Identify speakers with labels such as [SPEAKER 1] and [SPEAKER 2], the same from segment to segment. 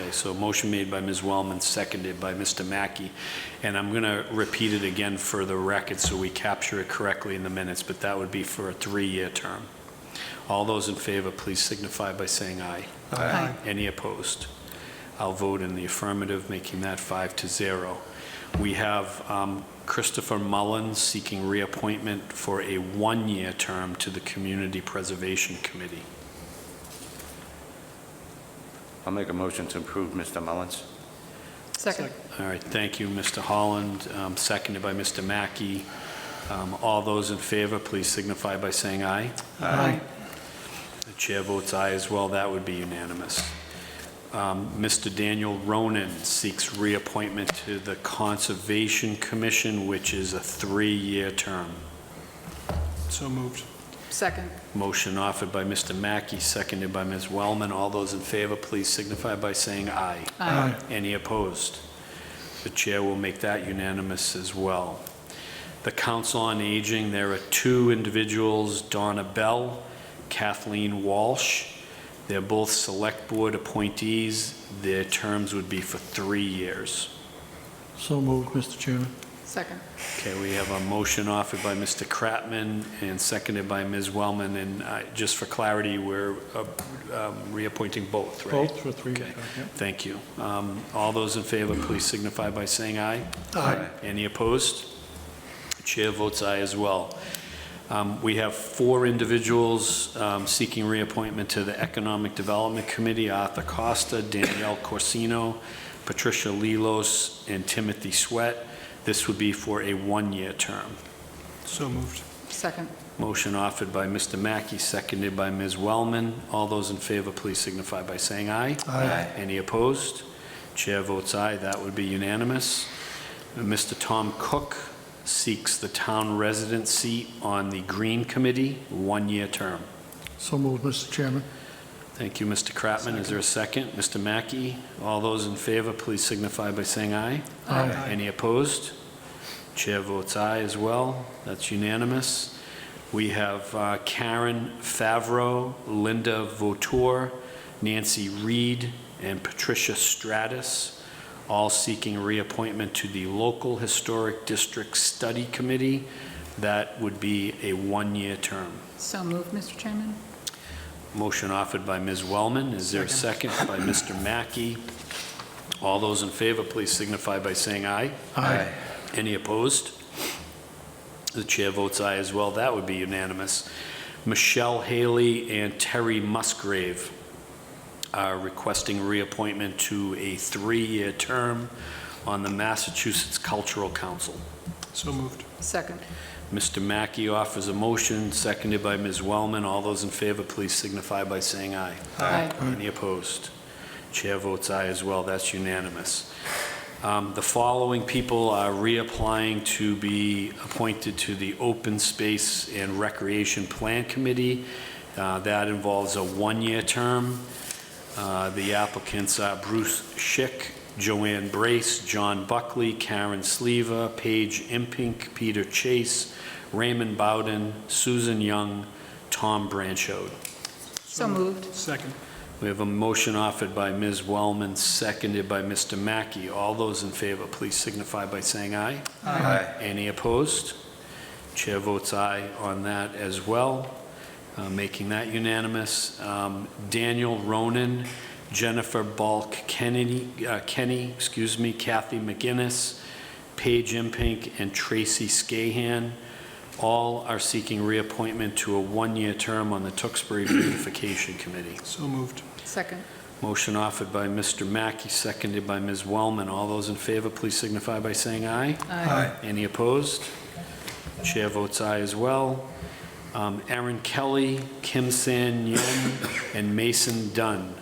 [SPEAKER 1] Okay, so motion made by Ms. Wellman, seconded by Mr. Mackey. And I'm going to repeat it again for the record so we capture it correctly in the minutes, but that would be for a three-year term. All those in favor, please signify by saying aye.
[SPEAKER 2] Aye.
[SPEAKER 1] Any opposed? I'll vote in the affirmative, making that five to zero. We have um, Christopher Mullins seeking reappointment for a one-year term to the Community Preservation Committee.
[SPEAKER 3] I'll make a motion to approve Mr. Mullins.
[SPEAKER 2] Second.
[SPEAKER 1] All right, thank you, Mr. Holland, um, seconded by Mr. Mackey. Um, All those in favor, please signify by saying aye.
[SPEAKER 2] Aye.
[SPEAKER 1] The chair votes aye as well, that would be unanimous. Um, Mr. Daniel Ronan seeks reappointment to the Conservation Commission, which is a three-year term.
[SPEAKER 4] So moved.
[SPEAKER 2] Second.
[SPEAKER 1] Motion offered by Mr. Mackey, seconded by Ms. Wellman. All those in favor, please signify by saying aye.
[SPEAKER 2] Aye.
[SPEAKER 1] Any opposed? The chair will make that unanimous as well. The Council on Aging, there are two individuals, Donna Bell, Kathleen Walsh. They're both Select Board appointees. Their terms would be for three years.
[SPEAKER 4] So moved, Mr. Chairman.
[SPEAKER 2] Second.
[SPEAKER 1] Okay, we have a motion offered by Mr. Kratman and seconded by Ms. Wellman, and uh, just for clarity, we're uh, um, reappointing both, right?
[SPEAKER 4] Both for three.
[SPEAKER 1] Okay. Thank you. Um, All those in favor, please signify by saying aye.
[SPEAKER 4] Aye.
[SPEAKER 1] Any opposed? Chair votes aye as well. Um, We have four individuals um, seeking reappointment to the Economic Development Committee, Arthur Costa, Danielle Corsino, Patricia Lelos, and Timothy Sweat. This would be for a one-year term.
[SPEAKER 4] So moved.
[SPEAKER 2] Second.
[SPEAKER 1] Motion offered by Mr. Mackey, seconded by Ms. Wellman. All those in favor, please signify by saying aye.
[SPEAKER 3] Aye.
[SPEAKER 1] Any opposed? Chair votes aye, that would be unanimous. Mr. Tom Cook seeks the town resident seat on the Green Committee, one-year term.
[SPEAKER 4] So moved, Mr. Chairman.
[SPEAKER 1] Thank you, Mr. Kratman. Is there a second? Mr. Mackey, all those in favor, please signify by saying aye.
[SPEAKER 4] Aye.
[SPEAKER 1] Any opposed? Chair votes aye as well. That's unanimous. We have uh, Karen Favreau, Linda Votour, Nancy Reed, and Patricia Stratus, all seeking reappointment to the Local Historic District Study Committee. That would be a one-year term.
[SPEAKER 2] So moved, Mr. Chairman?
[SPEAKER 1] Motion offered by Ms. Wellman. Is there a second by Mr. Mackey? All those in favor, please signify by saying aye.
[SPEAKER 3] Aye.
[SPEAKER 1] Any opposed? The chair votes aye as well. That would be unanimous. Michelle Haley and Terry Musgrave are requesting reappointment to a three-year term on the Massachusetts Cultural Council.
[SPEAKER 4] So moved.
[SPEAKER 2] Second.
[SPEAKER 1] Mr. Mackey offers a motion, seconded by Ms. Wellman. All those in favor, please signify by saying aye.
[SPEAKER 2] Aye.
[SPEAKER 1] Any opposed? Chair votes aye as well, that's unanimous. Um, The following people are reapplying to be appointed to the Open Space and Recreation Plan Committee. Uh, That involves a one-year term. Uh, The applicants are Bruce Schick, Joanne Brace, John Buckley, Karen Sleva, Paige Impink, Peter Chase, Raymond Bowden, Susan Young, Tom Branchode.
[SPEAKER 2] So moved.
[SPEAKER 4] Second.
[SPEAKER 1] We have a motion offered by Ms. Wellman, seconded by Mr. Mackey. All those in favor, please signify by saying aye.
[SPEAKER 3] Aye.
[SPEAKER 1] Any opposed? Chair votes aye on that as well, uh, making that unanimous. Um, Daniel Ronan, Jennifer Balk Kennedy, uh, Kenny, excuse me, Kathy McGinnis, Paige Impink, and Tracy Scahan, all are seeking reappointment to a one-year term on the Tewksbury Beautification Committee.
[SPEAKER 4] So moved.
[SPEAKER 2] Second.
[SPEAKER 1] Motion offered by Mr. Mackey, seconded by Ms. Wellman. All those in favor, please signify by saying aye.
[SPEAKER 2] Aye.
[SPEAKER 1] Any opposed? Chair votes aye as well. Um, Aaron Kelly, Kim San Yun, and Mason Dunn,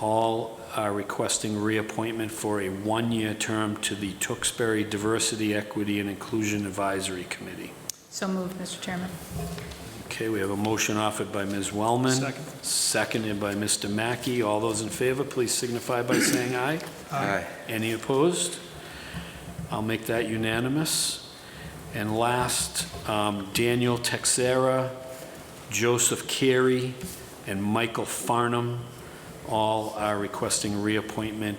[SPEAKER 1] all are requesting reappointment for a one-year term to the Tewksbury Diversity, Equity, and Inclusion Advisory Committee.
[SPEAKER 2] So moved, Mr. Chairman?
[SPEAKER 1] Okay, we have a motion offered by Ms. Wellman.
[SPEAKER 4] Second.
[SPEAKER 1] Seconded by Mr. Mackey. All those in favor, please signify by saying aye.
[SPEAKER 3] Aye.
[SPEAKER 1] Any opposed? I'll make that unanimous. And last, um, Daniel Texera, Joseph Carey, and Michael Farnham all are requesting reappointment